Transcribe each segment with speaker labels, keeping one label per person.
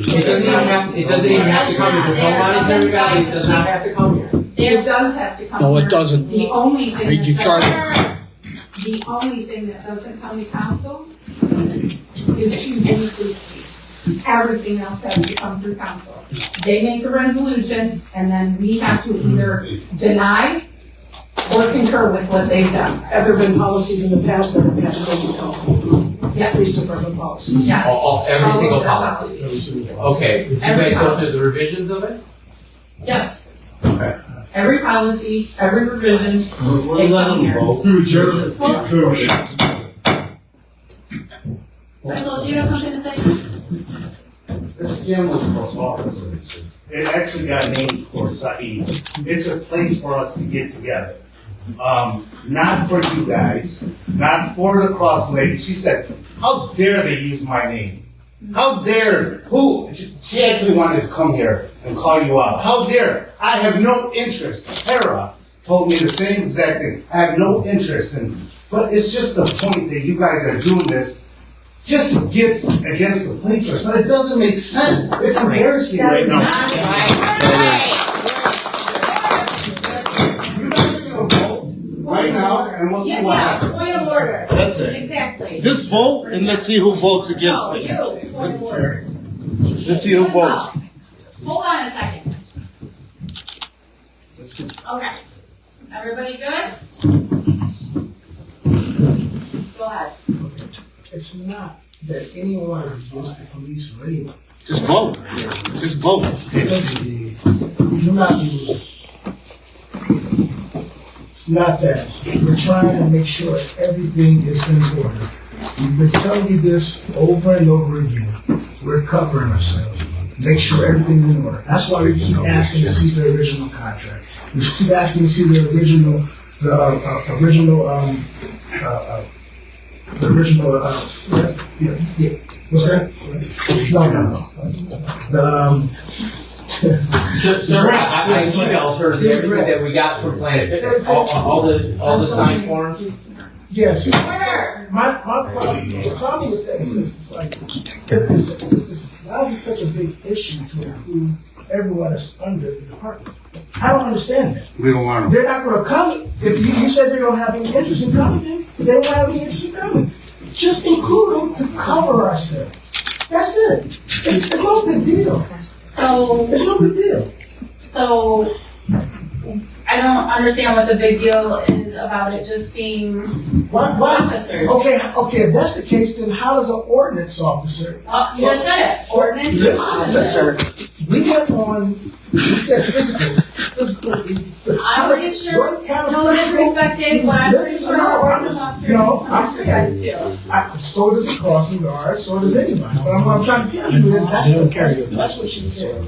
Speaker 1: It doesn't even have, it doesn't even have to come here, there's no monetary value, it does not have to come here.
Speaker 2: It does have to come.
Speaker 3: No, it
Speaker 2: here.
Speaker 3: doesn't.
Speaker 2: The only thing.
Speaker 3: Read your
Speaker 2: that
Speaker 3: charter.
Speaker 2: doesn't- The only thing that doesn't come to council is choosing the food chief. Everything else has to come through council. They make the resolution and then we have to either deny or concur with what they've done.
Speaker 4: Have there been policies in the past that have had to go to council?
Speaker 2: Yeah.
Speaker 4: Police department policies.
Speaker 1: All,
Speaker 2: Yes.
Speaker 1: all- every
Speaker 2: All of
Speaker 1: single
Speaker 2: their
Speaker 1: policy. Okay, did you guys go through the revisions of it?
Speaker 2: Yes.
Speaker 1: Okay.
Speaker 2: Every policy, every revision,
Speaker 5: We're
Speaker 2: they come
Speaker 5: letting
Speaker 2: here.
Speaker 5: vote.
Speaker 6: Through Jer-
Speaker 7: Well-
Speaker 6: through-
Speaker 7: Rizal, do you have something to say?
Speaker 5: This gym was for all purposes. It actually got named for Saeed. It's a place for us to get together. Um, not for you guys, not for the cross lady. She said, how dare they use my name? How dare, who, she- she actually wanted to come here and call you out. How dare, I have no interest. Tara told me the same exact thing. I have no interest in, but it's just the point that you guys are doing this just gets against the plaintiff. So it doesn't make sense. It's embarrassing right now. You guys are gonna vote right now, and we'll see
Speaker 7: Yeah,
Speaker 5: what
Speaker 7: yeah,
Speaker 5: happens.
Speaker 7: point of order,
Speaker 6: That's it.
Speaker 7: exactly.
Speaker 6: Just vote and let's see who votes against
Speaker 7: No,
Speaker 6: it.
Speaker 7: you, point of order.
Speaker 6: Let's see who votes.
Speaker 7: Hold on a second. Okay, everybody good? Go ahead.
Speaker 8: It's not that anyone is against the police or anyone.
Speaker 6: Just vote. Just vote.
Speaker 8: It's, we do not believe. It's not that. We're trying to make sure everything is in order. We've been telling you this over and over again. We're covering ourselves. Make sure everything's in order. That's why we keep asking to see the original contract. We keep asking to see the original, the, uh, uh, original, um, uh, uh, the original, uh, yeah, yeah, yeah. What's that? No, no, no. The, um,
Speaker 1: So, so I, I I emailed her everything that we got from Planet Fitness, all, all the, all the signed forms.
Speaker 8: Yes.
Speaker 7: Order.
Speaker 8: My, my problem, the problem with that is just, it's like, it's, it's, why is it such a big issue to include everyone that's under the department? I don't understand that.
Speaker 6: We don't want
Speaker 8: They're not gonna come, if you, you said they don't have any interest in coming, then they don't have any interest in coming. Just include them to cover ourselves. That's it. It's, it's no big deal.
Speaker 7: So,
Speaker 8: It's no big deal.
Speaker 7: so, I don't understand what the big deal is about it just being
Speaker 8: Why, why?
Speaker 7: officers.
Speaker 8: Okay, okay, if that's the case, then how does an ordinance officer
Speaker 7: Oh, you just said it, ordinance and
Speaker 8: Listen,
Speaker 7: officers.
Speaker 8: listen, we went on, we said physical, physical.
Speaker 7: I'm pretty sure-
Speaker 8: What kind of
Speaker 7: No
Speaker 8: physical-
Speaker 7: disrespected, but I'm pretty
Speaker 8: Listen,
Speaker 7: sure
Speaker 8: no, I'm
Speaker 7: ordinance
Speaker 8: just-
Speaker 7: officers.
Speaker 8: no, I'm
Speaker 7: saying.
Speaker 8: I- So does a crossing guard, so does anybody, but I'm, I'm trying to tell you, is that's what, that's, that's what she said.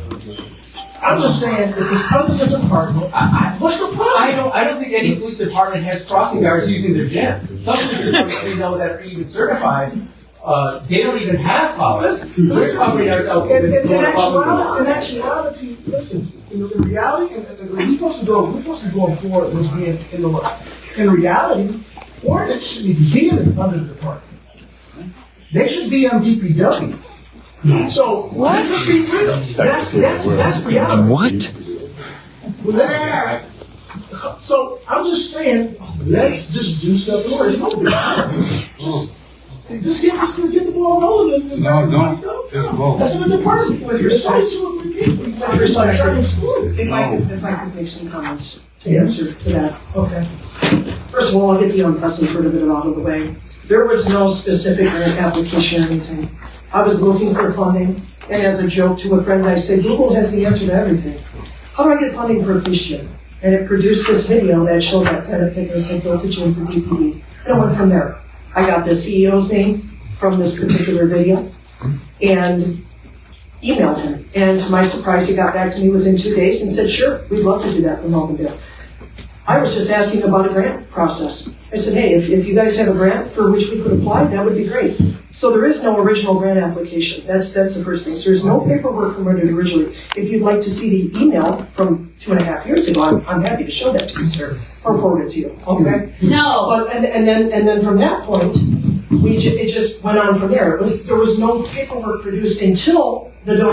Speaker 8: I'm just saying, if it's under the department, I, I, what's the
Speaker 1: I
Speaker 8: problem?
Speaker 1: don't, I don't think any police department has crossing guards using their gym. Some police departments we know that are even certified, uh, they don't even have policies.
Speaker 8: Listen,
Speaker 1: We're
Speaker 8: listen.
Speaker 1: covering ourselves
Speaker 8: In, in,
Speaker 1: with
Speaker 8: in
Speaker 1: more public
Speaker 8: actuality,
Speaker 1: law.
Speaker 8: in actuality, listen, in, in reality, in, in, we're supposed to go, we're supposed to be going forward with being in the law. In reality, ordinance shouldn't even be in the, under the department. They should be on DPW. So, what? Let's be real. That's, that's, that's reality. What? Well, that's, so, I'm just saying, let's just do stuff in order. It's no big deal. Just, just get, just get the ball rolling. Just- just
Speaker 6: No,
Speaker 8: let
Speaker 6: don't.
Speaker 8: it go.
Speaker 6: Just vote.
Speaker 8: That's an apartment with your side two or three people. You talk about charging school.
Speaker 4: If I could, if I could make some comments to
Speaker 8: Yes.
Speaker 4: answer to that.
Speaker 8: Okay.
Speaker 4: First of all, I'll get the unprecedented part of it out of the way. There was no specific grant application or anything. I was looking for funding, and as a joke to a friend, I said, Google has the answer to everything. How do I get funding for a police gym? And it produced this video that showed that Planet Fitness had built a gym for DPD. And it went from there. I got the CEO's name from this particular video and emailed him. And to my surprise, he got back to me within two days and said, sure, we'd love to do that for Melvindale. I was just asking about a grant process. I said, hey, if, if you guys have a grant for which we could apply, that would be great. So there is no original grant application. That's, that's the first thing. So there's no paperwork from it originally. If you'd like to see the email from two and a half years ago, I'm, I'm happy to show that to you, sir, or forward it to you, okay?
Speaker 7: No,
Speaker 4: But, and, and then, and then from that point, we, ju- it just went on from there. It was, there was no paperwork produced until the donation